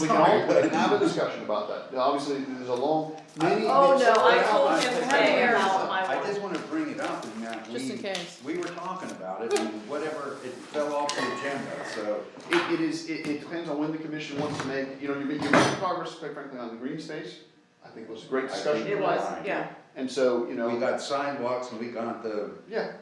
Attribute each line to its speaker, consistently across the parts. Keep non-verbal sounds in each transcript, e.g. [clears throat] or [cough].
Speaker 1: We can all have a discussion about that, Now, obviously, there's a long, many,
Speaker 2: Oh,
Speaker 1: many-
Speaker 2: no, I
Speaker 3: Yeah,
Speaker 2: told
Speaker 3: I-
Speaker 2: him
Speaker 3: I-
Speaker 2: today
Speaker 3: I-
Speaker 2: about my
Speaker 3: I just
Speaker 2: one.
Speaker 3: wanna bring it up and that we.
Speaker 4: Just in case.
Speaker 3: We were talking about it and whatever, it fell off the agenda, so.
Speaker 1: it, it is, it, it depends on when the commission wants to make, you know, you make, you make progress, quite frankly, on the green space. I think was a great discussion,
Speaker 2: It was, yeah,
Speaker 1: and so, you
Speaker 3: We
Speaker 1: know,
Speaker 3: got sidewalks and we got the,
Speaker 1: yeah,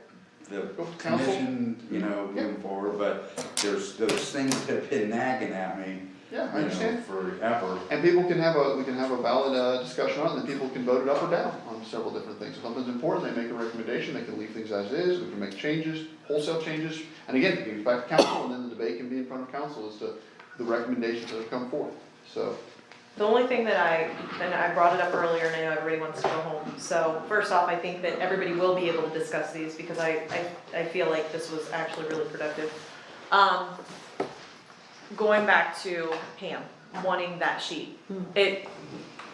Speaker 3: the
Speaker 1: Go to council.
Speaker 3: commission, you know, moving forward, but there's those things that have been nagging at me.
Speaker 1: yeah,
Speaker 3: you
Speaker 1: I
Speaker 3: know,
Speaker 1: understand.
Speaker 3: Forever.
Speaker 1: And people can have a, we can have a valid, uh, discussion on it, and people can vote it up or down on several different things. If something's important, they make a recommendation, they can leave things as is, we can make changes, wholesale changes. And again, it goes back to council, and then the debate can be in front of council as to the recommendations that have come forth, so.
Speaker 2: the only thing that I, and I brought it up earlier, and I know everybody wants to go home, so first off, I think that everybody will be able to discuss these, because I, I, I feel like this was actually really productive. Um, going back to Pam, wanting that sheet, it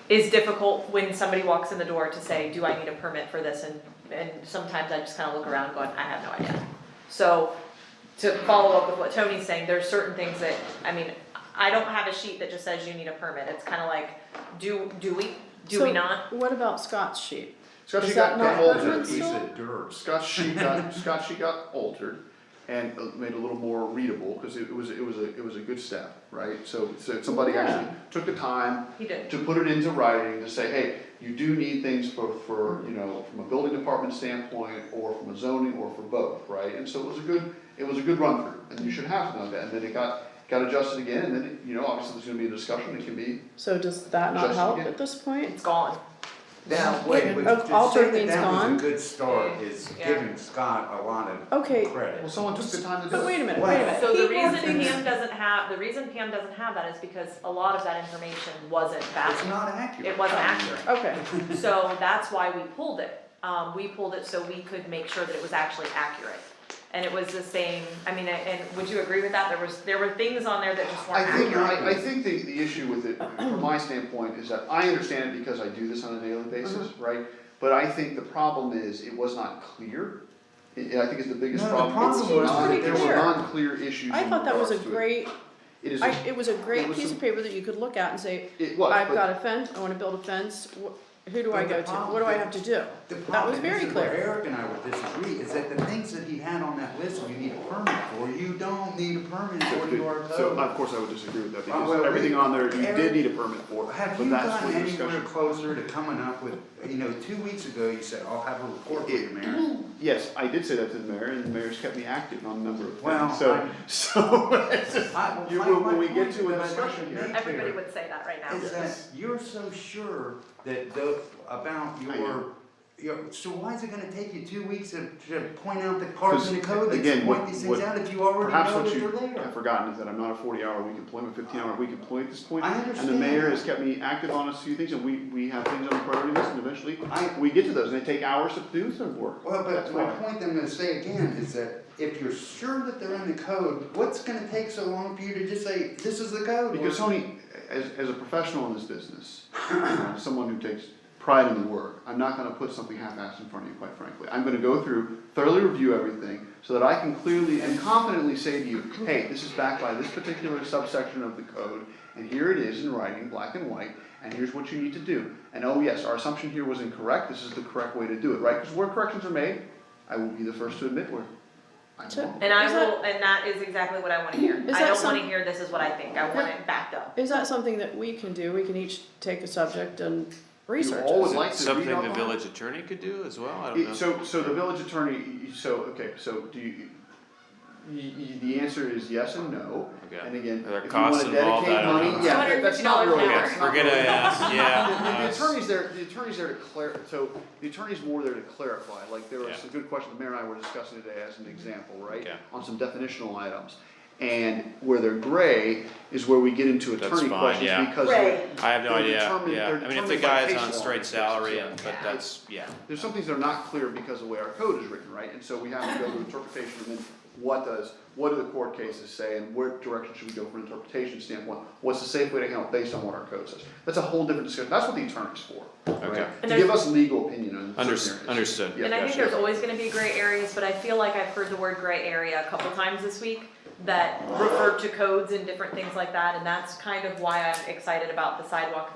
Speaker 2: is difficult when somebody walks in the door to say, do I need a permit for this, and, and sometimes I just kinda look around going, I have no idea. So, to follow up with what Tony's saying, there's certain things that, I mean, I don't have a sheet that just says you need a permit, it's kinda like, do, do we, do we
Speaker 4: So,
Speaker 2: not?
Speaker 4: What about Scott's sheet?
Speaker 1: Scott,
Speaker 4: Is
Speaker 1: she got
Speaker 4: that not
Speaker 1: got altered.
Speaker 4: pertinent?
Speaker 3: There's a piece of dirt.
Speaker 1: Scott sheet got [laughs] Scott sheet got altered and uh, made a little more readable because it was it was a it was a good step, right? So so somebody actually took the time
Speaker 2: He did.
Speaker 1: to put it into writing to say, hey, you do need things for for you know from a building department standpoint or from a zoning or for both, right? And so it was a good it was a good run through, and you should have to know that. And then it got got adjusted again, and then it, you know obviously there's going to be a discussion. It can be
Speaker 4: So does that not
Speaker 1: Just
Speaker 4: help
Speaker 1: again.
Speaker 4: at this point?
Speaker 2: It's gone.
Speaker 3: Now, wait, wait,
Speaker 4: Oh,
Speaker 3: to say
Speaker 4: altered
Speaker 3: that
Speaker 4: means
Speaker 3: that was
Speaker 4: gone?
Speaker 3: a good start is
Speaker 2: Yeah.
Speaker 3: giving Scott a lot of
Speaker 4: Okay,
Speaker 3: credit.
Speaker 1: well, someone took the time to do
Speaker 4: but
Speaker 1: it.
Speaker 4: wait a minute,
Speaker 3: Wow.
Speaker 4: wait a minute.
Speaker 2: So the
Speaker 4: People
Speaker 2: reason
Speaker 4: think-
Speaker 2: Pam doesn't have, the reason Pam doesn't have that is because a lot of that information wasn't
Speaker 3: It's
Speaker 2: back.
Speaker 3: not accurate.
Speaker 2: It wasn't accurate.
Speaker 4: Okay,
Speaker 2: So that's why we pulled it. Um, we pulled it so we could make sure that it was actually accurate. And it was the same, I mean, and would you agree with that? There was, there were things on there that just weren't
Speaker 1: I think,
Speaker 2: accurate.
Speaker 1: I, I think the, the issue with it, from my standpoint, is that I understand it because I do this on a daily
Speaker 4: Mm-hmm.
Speaker 1: basis, right? But I think the problem is, it was not clear, I, I think it's the biggest
Speaker 3: No, the
Speaker 1: problem, it was
Speaker 3: problem
Speaker 4: was
Speaker 1: non,
Speaker 4: pretty
Speaker 1: there were
Speaker 4: clear.
Speaker 1: non-clear issues
Speaker 4: I
Speaker 1: in
Speaker 4: thought that was a
Speaker 1: regards to it.
Speaker 4: great,
Speaker 1: It is,
Speaker 4: I,
Speaker 1: a-
Speaker 4: it was a
Speaker 1: It
Speaker 4: great
Speaker 1: was
Speaker 4: piece
Speaker 1: some-
Speaker 4: of paper that you could look at and say,
Speaker 1: it was,
Speaker 4: I've
Speaker 1: but-
Speaker 4: got a fence, I wanna build a fence, wh- who do I
Speaker 3: But the
Speaker 4: go to?
Speaker 3: problem-
Speaker 4: What do I have to do?
Speaker 3: The
Speaker 4: That was
Speaker 3: problem, this
Speaker 4: very
Speaker 3: is where
Speaker 4: clear.
Speaker 3: Eric and I would disagree, is that the things that he had on that list, you need a permit for, you don't need a permit for your code.
Speaker 1: So, uh, of course, I would disagree with that,
Speaker 3: Well,
Speaker 1: because
Speaker 3: well,
Speaker 1: everything on there, you
Speaker 3: Eric,
Speaker 1: did need a permit for,
Speaker 3: Have
Speaker 1: but
Speaker 3: you
Speaker 1: that's
Speaker 3: gotten
Speaker 1: where the
Speaker 3: anywhere
Speaker 1: discussion.
Speaker 3: closer to coming up with, you know, two weeks ago, you said, I'll have a report for you,
Speaker 1: [clears throat]
Speaker 3: Mayor.
Speaker 1: Yes, I did say that to the mayor, and the mayor's kept me active on a number of
Speaker 3: Well,
Speaker 1: things, so, [laughs]
Speaker 3: I-
Speaker 1: so,
Speaker 3: I- well,
Speaker 1: You-
Speaker 3: my-
Speaker 1: when- when
Speaker 3: my
Speaker 1: we get
Speaker 3: point
Speaker 1: to a
Speaker 3: that I'd like
Speaker 1: discussion
Speaker 3: make
Speaker 1: here-
Speaker 3: there
Speaker 2: Everybody would say that right now.
Speaker 3: Is that you're so sure that the, about
Speaker 1: I know.
Speaker 3: your, your, so why is it gonna take you two weeks to, to point out the cards
Speaker 1: 'Cause,
Speaker 3: in the code that
Speaker 1: again,
Speaker 3: point
Speaker 1: what-
Speaker 3: these
Speaker 1: what-
Speaker 3: things out if you already
Speaker 1: Perhaps
Speaker 3: know
Speaker 1: what
Speaker 3: that
Speaker 1: you
Speaker 3: they're there?
Speaker 1: have forgotten is that I'm not a forty hour week employee, fifteen hour week employee at this point.
Speaker 3: I
Speaker 1: And
Speaker 3: understand.
Speaker 1: the mayor has kept me active on a few things, and we, we have things on the priority list, and eventually,
Speaker 3: I-
Speaker 1: we get to those, and they take hours to do some work.
Speaker 3: Well,
Speaker 1: That's
Speaker 3: but my
Speaker 1: why.
Speaker 3: point that I'm gonna say again is that if you're sure that they're in the code, what's gonna take so long for you to just say, this is the code?
Speaker 1: Because
Speaker 3: Or-
Speaker 1: Tony, as, as a professional in this business, uh, someone who takes pride in the work, I'm not gonna put something half-assed in front of you, quite frankly. I'm gonna go through, thoroughly review everything, so that I can clearly and confidently say to you, hey, this is backed by this particular subsection of the code, and here it is in writing, black and white, and here's what you need to do. And oh yes, our assumption here was incorrect, this is the correct way to do it, right? Because where corrections are made, I will be the first to admit where I'm
Speaker 4: Sure.
Speaker 1: wrong.
Speaker 2: And I
Speaker 4: Is
Speaker 2: will, and that is exactly what I wanna hear.
Speaker 4: Is
Speaker 2: I
Speaker 4: that
Speaker 2: don't wanna
Speaker 4: some-
Speaker 2: hear this is what I think, I want it backed up.
Speaker 4: Is that something that we can do? We can each take a subject and
Speaker 1: You
Speaker 4: research
Speaker 1: all
Speaker 4: it?
Speaker 1: would like to read
Speaker 5: Something
Speaker 1: up
Speaker 5: the
Speaker 1: on?
Speaker 5: village attorney could do as well, I
Speaker 1: It-
Speaker 5: don't know.
Speaker 1: So, so the village attorney, so, okay, so do you, y- y- the answer is yes and no.
Speaker 5: Okay.
Speaker 1: And again,
Speaker 5: Are there
Speaker 1: if you
Speaker 5: costs
Speaker 1: wanna
Speaker 5: involved? I
Speaker 1: dedicate
Speaker 5: don't
Speaker 1: money,
Speaker 5: know.
Speaker 1: yeah, that- that's not
Speaker 2: $250
Speaker 1: really,
Speaker 2: an hour.
Speaker 1: that's
Speaker 2: Okay,
Speaker 1: not
Speaker 5: We're gonna
Speaker 1: really-
Speaker 5: ask,
Speaker 1: The the
Speaker 5: yeah. uh,
Speaker 1: attorney's there, the attorney's there to clar, so the attorney's more there to clarify, like there was a
Speaker 5: Yeah.
Speaker 1: good question the mayor and I were discussing today as an example, right?
Speaker 5: Okay.
Speaker 1: On some definitional items. And where they're gray is where we get into
Speaker 5: That's
Speaker 1: attorney
Speaker 5: fine,
Speaker 1: questions
Speaker 5: yeah.
Speaker 1: because
Speaker 2: Gray.
Speaker 5: I have no
Speaker 1: they're
Speaker 5: idea,
Speaker 1: determined-
Speaker 5: yeah,
Speaker 1: they're
Speaker 5: I mean, if the
Speaker 1: determined by
Speaker 5: guy is
Speaker 1: case
Speaker 5: on
Speaker 1: law
Speaker 5: straight
Speaker 1: cases,
Speaker 5: salary,
Speaker 1: yeah.
Speaker 5: and- but that's, yeah.
Speaker 1: There's some things that are not clear because of the way our code is written, right? And so we have to go to interpretation and then what does, what do the court cases say and where direction should we go from an interpretation standpoint? What's the safe way to handle it based on what our code says? That's a whole different discussion. That's what the attorney's for,
Speaker 5: Okay.
Speaker 1: right?
Speaker 2: And
Speaker 1: To give
Speaker 2: there's-
Speaker 1: us legal opinion on certain
Speaker 5: Under-
Speaker 1: areas.
Speaker 5: understood.
Speaker 1: Yeah.
Speaker 2: And I think
Speaker 5: Gotcha.
Speaker 2: there's always gonna be gray areas, but I feel like I've heard the word gray area a couple times this week. that refer to codes and different things like that, and that's kind of why I'm excited about the sidewalk thing.